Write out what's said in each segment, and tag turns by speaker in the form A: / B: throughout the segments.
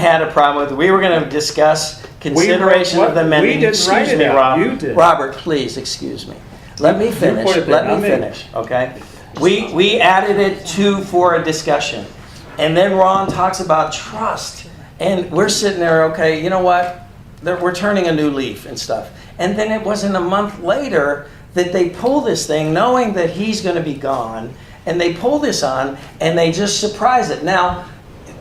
A: had a problem with. We were going to discuss consideration
B: wrote-
A: of the
B: what- we
A: amendment.
B: didn't write
A: Excuse
B: it
A: me,
B: out.
A: Rob.
B: You did.
A: Robert, please, excuse me. Let me
B: put
A: finish,
B: it there,
A: let
B: not
A: me
B: me.
A: finish, okay? We, we added it to for a discussion. And then Ron talks about trust. And we're sitting there, okay, you know what? They're- We're turning a new leaf and stuff. And then it wasn't a month later that they pull this thing, knowing that he's going to be gone. And they pull this on and they just surprise it. Now,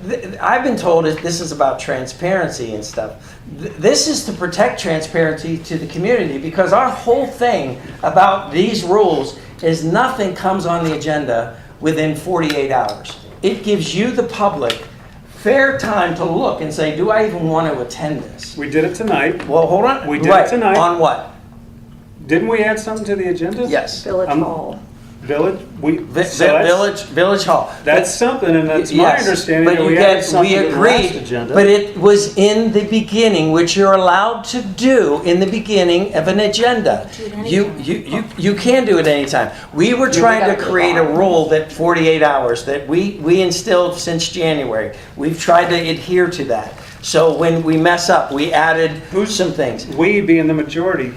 A: th- I've been told that this is about transparency and stuff. Th- This is to protect transparency to the community because our whole thing about these rules is nothing comes on the agenda within 48 hours. It gives you, the public, fair time to look and say, do I even want to attend this?
B: We did it tonight.
A: Well, hold on.
B: We did it
A: Right.
B: tonight.
A: On what?
B: Didn't we add something to the agenda?
A: Yes. Vi-
C: Village
B: Um,
C: Hall.
B: Village, we,
A: vi-
B: so that's,
A: Village, Village Hall.
B: that's something, and that's my
A: Yes,
B: understanding
A: but
B: that we
A: you
B: added
A: get-
B: something to the last
A: agreed,
B: agenda.
A: But it was in the beginning, which you're allowed to do in the beginning of an agenda.
C: Do it anytime.
A: You, you, you, you can do it anytime. We were
C: we
A: trying to
C: gotta move
A: create a
C: on.
A: rule that 48 hours, that we, we instilled since January. We've tried to adhere to that. So when we mess up, we added some things.
B: We being the majority,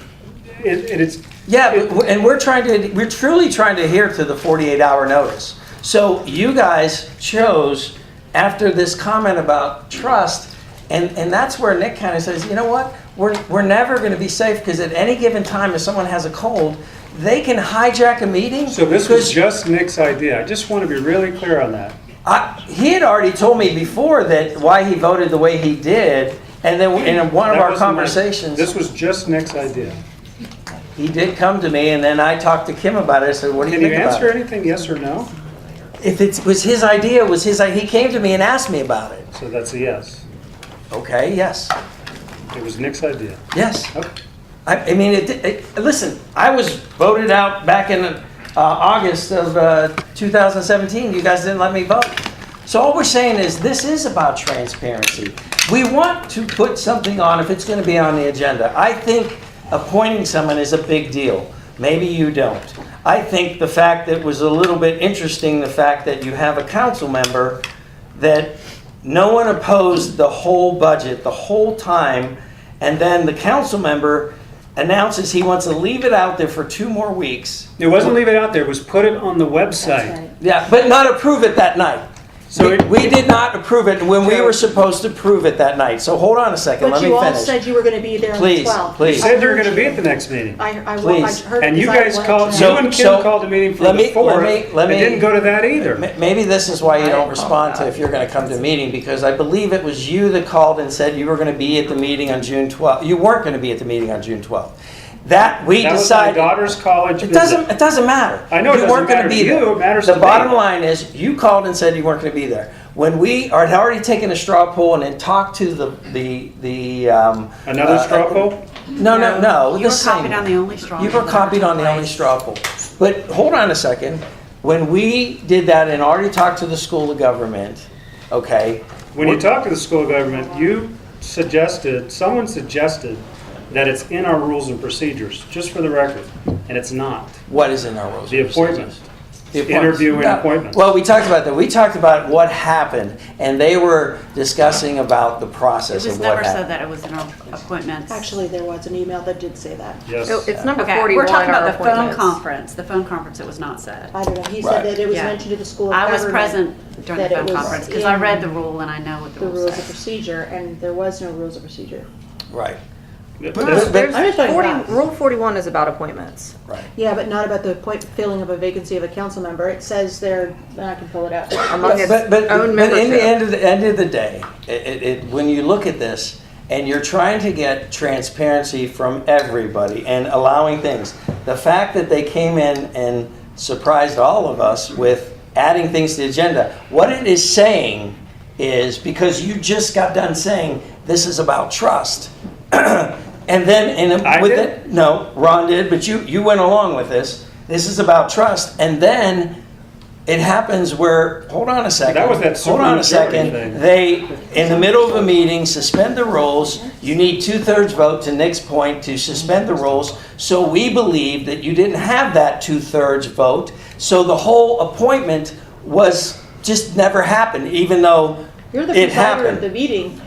B: it, it is.
A: Yeah, but
B: it-
A: w- and we're trying to, we're truly trying to adhere to the 48-hour notice. So you guys chose, after this comment about trust, and, and that's where Nick kind of says, you know what? We're, we're never going to be safe, because at any given time, if someone has a cold, they can hijack a meeting.
B: So this was
A: 'cause
B: just Nick's idea. I just want to be really clear on that.
A: I- He had already told me before that, why he voted the way he did, and then in one of
B: That
A: our
B: wasn't my-
A: conversations.
B: This was just Nick's idea.
A: He did come to me, and then I talked to Kim about it, I said, what do you
B: Can
A: think
B: you
A: about it?
B: answer anything, yes or no?
A: If it was his idea, it was his, i- he came to me and asked me about it.
B: So that's a yes.
A: Okay, yes,
B: It was Nick's idea.
A: yes.
B: Okay.
A: I, I mean, it, it, listen, I was voted out back in uh, August of uh, 2017. You guys didn't let me vote. So all we're saying is this is about transparency. We want to put something on if it's going to be on the agenda. I think appointing someone is a big deal. Maybe you don't. I think the fact that was a little bit interesting, the fact that you have a council member that no one opposed the whole budget the whole time, and then the council member announces he wants to leave it out there for two more weeks.
B: It wasn't leave it out there, it was put it on the website.
C: That's
A: Yeah, but not approve it that night.
B: So
A: We-
B: it-
A: We did not approve it when we were supposed to prove it that night, so hold on a second,
C: But
A: let me
C: you all
A: finish.
C: said you were gonna be there on the
A: Please,
C: 12th.
A: please.
B: You said you were going to be at the next meeting.
C: I, I, wa- I
A: Please.
C: heard.
B: And you
C: because I
B: guys
C: went
B: called,
C: to-
B: you
A: So-
B: and
A: so-
B: Kim called a meeting for
A: let
B: the
A: me- let
B: fourth.
A: me- let
B: I
A: me-
B: didn't go to that
A: Ma-
B: either.
A: Maybe this is why you
C: I
A: don't
C: didn't
A: respond
C: call
A: to if you're gonna come to a meeting, because I believe it was you that called and said you were gonna be at the meeting on June twelfth, you weren't gonna be at the meeting on June twelfth. That, we
B: That was my
A: decided.
B: daughter's college
A: It
B: visit.
A: doesn't, it doesn't matter.
B: I know it
A: You weren't
B: doesn't
A: gonna
B: matter
A: be
B: to you,
A: there.
B: it matters
A: The
B: to me.
A: bottom line is, you called and said you weren't gonna be there. When we are- had already taken a straw poll and then talked to the, the, the, um.
B: Another
A: uh,
B: straw poll?
A: No, no, no,
D: You
A: the
D: were
A: same.
D: copied on the only straw.
A: You were copied on the only straw poll. But hold on a second. When we did that and already talked to the school of government, okay?
B: When you talked to the school government, you suggested, someone suggested that it's in our rules and procedures, just for the record, and it's not.
A: What is in our rules?
B: The
A: and
B: appointment.
A: procedures?
B: Interview and
A: Yeah.
B: appointment.
A: Well, we talked about that. We talked about what happened, and they were discussing about the process
D: It was
A: of what
D: never said
A: happened.
D: that it was an appointment.
C: Actually, there was an email that did say that.
B: Yes.
E: So Oh, It's number
D: Okay,
E: 41.
D: we're talking
E: our
D: about the phone
E: appointments.
D: conference. The phone conference, it was not said.
C: I don't know, he
A: Right.
C: said that it was
D: Yeah.
C: mentioned to the school of
D: I was
C: government,
D: present during the
C: that it
D: phone
C: was
D: conference because I read
C: in
D: the rule and I know what the
C: The
D: rule
C: rules of
D: says.
C: procedure, and there was no rules of procedure.
A: Right,
B: That's-
E: There's-
A: but-
C: I'm just
E: there's
C: talking
E: 40
C: about-
E: Rule 41 is about appointments.
A: right.
C: Yeah, but not about the appoint, filling of a vacancy of a council member. It says there, and I can pull it up.
E: Among its
A: but, but,
E: own
A: but in the
E: membership.
A: end of the end of the day, it, it, it, when you look at this and you're trying to get transparency from everybody and allowing things, the fact that they came in and surprised all of us with adding things to the agenda, what it is saying is because you just got done saying this is about trust. And then, and
B: I
A: with
B: did.
A: it, no, Ron did, but you, you went along with this. This is about trust. And then it happens where, hold on a second.
B: That was that
A: Hold on a
B: supermajority
A: second.
B: thing.
A: They, in the middle of a meeting, suspend the rules. You need two-thirds vote, to Nick's point, to suspend the rules. So we believe that you didn't have that two-thirds vote. So the whole appointment was, just never happened, even though
C: You're the
A: It
C: presider
A: happened.
C: of the meeting.